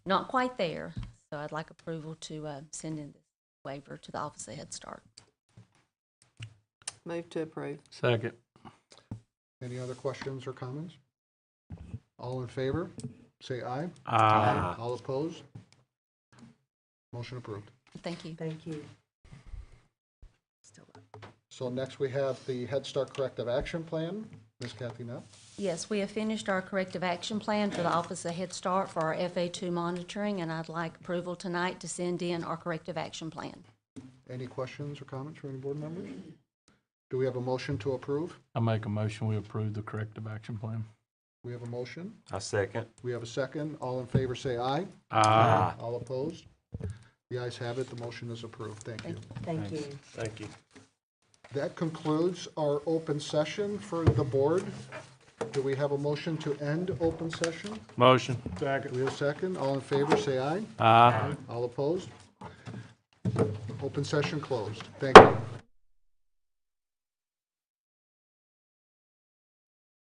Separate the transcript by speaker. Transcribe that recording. Speaker 1: not quite there. So I'd like approval to uh, send in this waiver to the Office of Head Start.
Speaker 2: Move to approve.
Speaker 3: Second.
Speaker 4: Any other questions or comments? All in favor, say aye.
Speaker 3: Aye.
Speaker 4: All opposed? Motion approved.
Speaker 1: Thank you.
Speaker 2: Thank you.
Speaker 4: So next we have the Head Start Corrective Action Plan. Ms. Kathy Knapp?
Speaker 1: Yes, we have finished our corrective action plan for the Office of Head Start for our FA2 monitoring, and I'd like approval tonight to send in our corrective action plan.
Speaker 4: Any questions or comments from any board members? Do we have a motion to approve?
Speaker 3: I make a motion, we approve the corrective action plan.
Speaker 4: We have a motion.
Speaker 5: I second.
Speaker 4: We have a second. All in favor, say aye.
Speaker 3: Aye.
Speaker 4: All opposed? The ayes have it. The motion is approved. Thank you.
Speaker 2: Thank you.
Speaker 5: Thank you.
Speaker 4: That concludes our open session for the board. Do we have a motion to end open session?
Speaker 3: Motion.
Speaker 4: Do we have a second? All in favor, say aye.
Speaker 3: Aye.
Speaker 4: All opposed? Open session closed. Thank you.